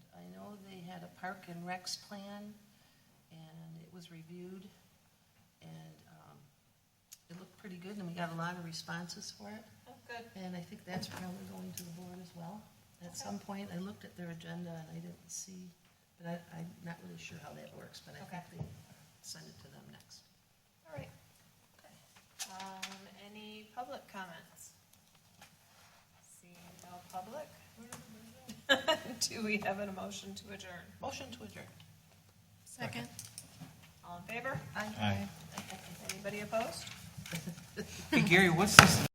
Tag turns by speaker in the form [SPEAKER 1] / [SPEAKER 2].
[SPEAKER 1] had a park and recs plan, and it was reviewed, and um, it looked pretty good, and we got a lot of responses for it.
[SPEAKER 2] Oh, good.
[SPEAKER 1] And I think that's probably going to the board as well. At some point, I looked at their agenda and I didn't see, but I, I'm not really sure how that works, but I think they send it to them next.
[SPEAKER 2] All right. Um, any public comments? Seeing no public? Do we have an motion to adjourn?
[SPEAKER 1] Motion to adjourn.
[SPEAKER 3] Second.
[SPEAKER 2] All in favor?
[SPEAKER 1] Aye.
[SPEAKER 4] Aye.
[SPEAKER 2] Anybody opposed?
[SPEAKER 5] Hey Gary, what's this